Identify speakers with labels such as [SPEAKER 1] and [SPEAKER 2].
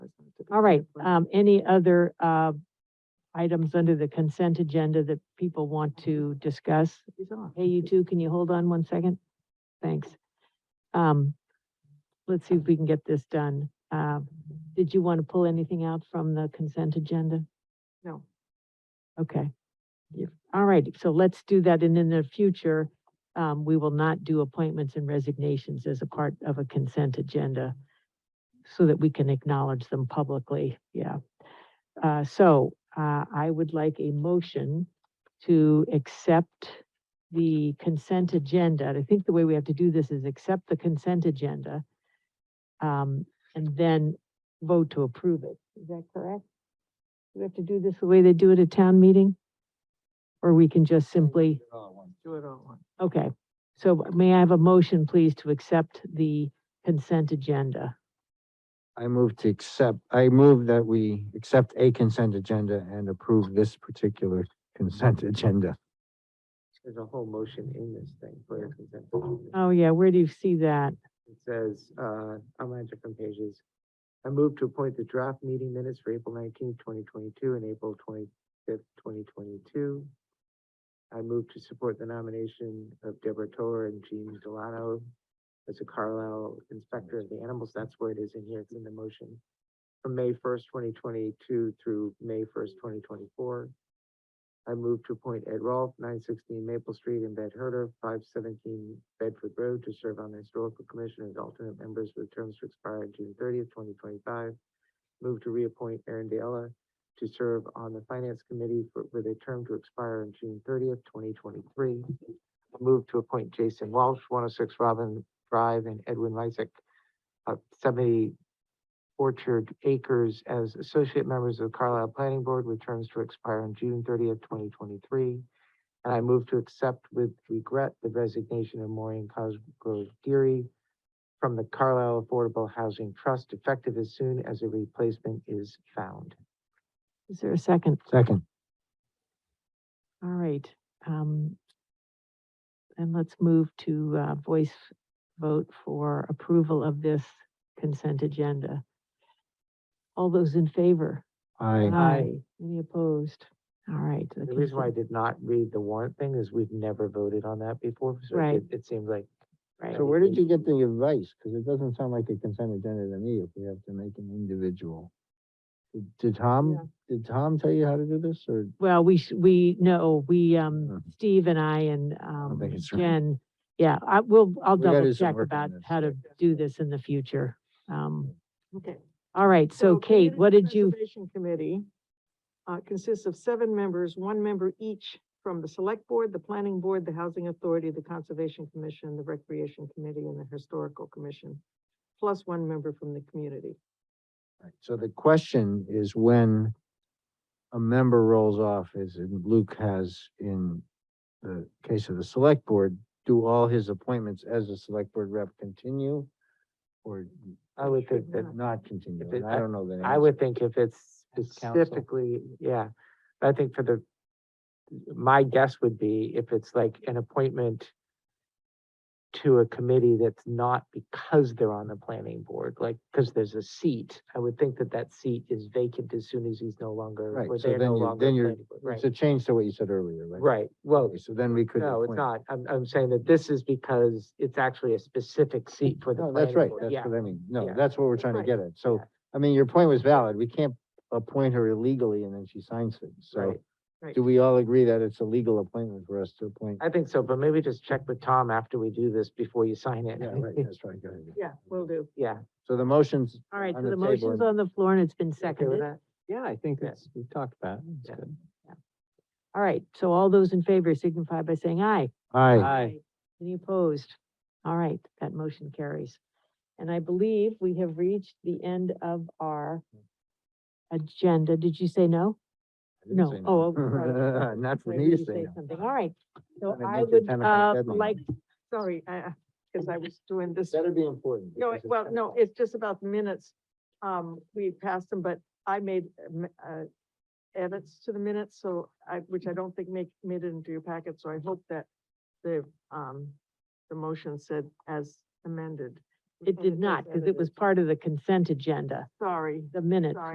[SPEAKER 1] All right, um, any other, uh, items under the consent agenda that people want to discuss? Hey, you two, can you hold on one second? Thanks. Um, let's see if we can get this done. Uh, did you want to pull anything out from the consent agenda?
[SPEAKER 2] No.
[SPEAKER 1] Okay. Yeah, All right, so let's do that, and in the future, um, we will not do appointments and resignations as a part of a consent agenda so that we can acknowledge them publicly, yeah. Uh, so, uh, I would like a motion to accept the consent agenda. And I think the way we have to do this is accept the consent agenda um, and then vote to approve it. Is that correct? Do We have to do this the way they do it at town meeting? Or we can just simply?
[SPEAKER 2] Do it all.
[SPEAKER 1] Okay, so may I have a motion, please, to accept the consent agenda?
[SPEAKER 3] I move to accept, I move that we accept a consent agenda and approve this particular consent agenda.
[SPEAKER 2] There's a whole motion in this thing for your consent.
[SPEAKER 1] Oh, yeah, where do you see that?
[SPEAKER 2] It says, uh, online different pages. I move to appoint the draft meeting minutes for April nineteenth, twenty twenty-two and April twenty-fifth, twenty twenty-two. I move to support the nomination of Deborah Tor and Jean Delano as a Carlisle Inspector of the Animals. That's where it is in here. It's in the motion. From May first, twenty twenty-two through May first, twenty twenty-four. I move to appoint Ed Rolfe, nine sixteen Maple Street in Bed Herter, five seventeen Bedford Road to serve on the Historical Commission as alternate members with terms to expire on June thirtieth, twenty twenty-five. Move to reappoint Aaron Deella to serve on the Finance Committee for, with a term to expire on June thirtieth, twenty twenty-three. Move to appoint Jason Walsh, one oh six Robin Drive and Edwin Lysick, uh, seventy Orchard Acres as associate members of Carlisle Planning Board with terms to expire on June thirtieth, twenty twenty-three. And I move to accept with regret the resignation of Maureen Cosgrove Geary from the Carlisle Affordable Housing Trust effective as soon as a replacement is found.
[SPEAKER 1] Is there a second?
[SPEAKER 3] Second,
[SPEAKER 1] All right, um, and let's move to, uh, voice vote for approval of this consent agenda. All those in favor?
[SPEAKER 3] I,
[SPEAKER 2] Aye.
[SPEAKER 1] Any opposed? All right. the
[SPEAKER 2] The reason why I
[SPEAKER 1] consent-
[SPEAKER 2] did not read the warrant thing is we've never voted on that before, so
[SPEAKER 1] Right.
[SPEAKER 2] it, it seemed like.
[SPEAKER 1] Right.
[SPEAKER 3] so where did you get the advice? Because it doesn't sound like a consent agenda to me if we have to make an individual. Did- Did
[SPEAKER 1] Yeah.
[SPEAKER 3] Tom, did Tom tell you how to do this or?
[SPEAKER 1] Well, we, sh- we, no, we, um,
[SPEAKER 3] Mhm.
[SPEAKER 1] Steve and I and, um,
[SPEAKER 3] think it's right.
[SPEAKER 1] Jen, yeah, I will, I'll
[SPEAKER 3] We gotta
[SPEAKER 1] double
[SPEAKER 3] do some
[SPEAKER 1] check
[SPEAKER 3] work on
[SPEAKER 1] about
[SPEAKER 3] this,
[SPEAKER 1] how to
[SPEAKER 3] yeah.
[SPEAKER 1] do this in the future. Um,
[SPEAKER 4] Okay.
[SPEAKER 1] all right, so Kate,
[SPEAKER 4] Community
[SPEAKER 1] what did you,
[SPEAKER 4] Preservation Committee uh, consists of seven members, one member each from the Select Board, the Planning Board, the Housing Authority, the Conservation Commission, the Recreation Committee, and the Historical Commission, plus one member from the community.
[SPEAKER 3] Right, So the question is when a member rolls off, as in Luke has in the case of the select board, do all his appointments as a select board rep continue? Or
[SPEAKER 2] I would
[SPEAKER 4] Should
[SPEAKER 2] think that
[SPEAKER 4] not.
[SPEAKER 3] not continue?
[SPEAKER 2] If it-
[SPEAKER 3] And I don't know the answer.
[SPEAKER 2] I would think if it's
[SPEAKER 3] As counsel.
[SPEAKER 2] specifically, yeah, I think for the, my guess would be if it's like an appointment to a committee that's not because they're on the planning board, like, because there's a seat, I would think that that seat is vacant as soon as he's no longer,
[SPEAKER 3] Right,
[SPEAKER 2] or
[SPEAKER 3] so
[SPEAKER 2] they're no
[SPEAKER 3] then you-
[SPEAKER 2] longer.
[SPEAKER 3] then
[SPEAKER 2] a
[SPEAKER 3] you're-
[SPEAKER 2] planning board,
[SPEAKER 3] It's a change to what you said earlier, right?
[SPEAKER 2] Right, right, well,
[SPEAKER 3] Okay, So then we could.
[SPEAKER 2] no, it's
[SPEAKER 3] appoint-
[SPEAKER 2] not, I'm, I'm saying that this is because it's actually a specific seat for the
[SPEAKER 3] No,
[SPEAKER 2] planning
[SPEAKER 3] that's Oh, right.
[SPEAKER 2] board,
[SPEAKER 3] That's
[SPEAKER 2] yeah.
[SPEAKER 3] what I mean.
[SPEAKER 2] yeah,
[SPEAKER 3] No, that's what we're trying to
[SPEAKER 4] right,
[SPEAKER 3] get at. So,
[SPEAKER 2] yeah.
[SPEAKER 3] I mean, your point was valid. We can't appoint her illegally and then she signs things. So
[SPEAKER 2] Right.
[SPEAKER 4] Right.
[SPEAKER 3] do we all agree that it's a legal appointment for us to appoint?
[SPEAKER 2] I think so, but maybe just check with Tom after we do this before you sign it.
[SPEAKER 3] Yeah, right, that's right, go ahead.
[SPEAKER 4] Yeah, will do.
[SPEAKER 2] Yeah.
[SPEAKER 3] So the motion's,
[SPEAKER 1] all right,
[SPEAKER 3] on
[SPEAKER 1] so
[SPEAKER 3] the
[SPEAKER 1] the
[SPEAKER 3] table
[SPEAKER 1] motion's
[SPEAKER 3] and-
[SPEAKER 1] on the floor and it's been
[SPEAKER 2] you okay with
[SPEAKER 1] seconded.
[SPEAKER 2] that?
[SPEAKER 5] Yeah, I think
[SPEAKER 2] Yeah.
[SPEAKER 5] it's, we've talked about it. It's
[SPEAKER 2] Yeah.
[SPEAKER 5] good.
[SPEAKER 1] All right, so all those in favor signify by saying aye.
[SPEAKER 3] aye,
[SPEAKER 5] Aye.
[SPEAKER 1] Any opposed? All right, that motion carries. And I believe we have reached the end of our agenda. Did you say no?
[SPEAKER 3] I didn't
[SPEAKER 1] No.
[SPEAKER 3] say
[SPEAKER 1] Oh, oh, sorry.
[SPEAKER 3] Not for
[SPEAKER 1] Why
[SPEAKER 3] me
[SPEAKER 1] would
[SPEAKER 3] to
[SPEAKER 1] you
[SPEAKER 3] say. no.
[SPEAKER 1] something? All right, so
[SPEAKER 3] Gotta
[SPEAKER 1] I
[SPEAKER 3] make it
[SPEAKER 1] would,
[SPEAKER 3] 10 o'clock
[SPEAKER 1] uh,
[SPEAKER 3] deadline.
[SPEAKER 1] like,
[SPEAKER 4] Sorry, I, because I was doing this.
[SPEAKER 3] That'd be important.
[SPEAKER 4] No,
[SPEAKER 3] because
[SPEAKER 4] it-
[SPEAKER 3] it's
[SPEAKER 4] well,
[SPEAKER 3] kind of-
[SPEAKER 4] no, it's just about the minutes. Um, we passed them, but I made, um, uh, edits to the minutes, so I, which I don't think make, made it into your packet, so I hope that the, um, the motion said as amended.
[SPEAKER 1] it did not, because it was part of the consent agenda,
[SPEAKER 4] Sorry.
[SPEAKER 1] the minutes.
[SPEAKER 4] Sorry.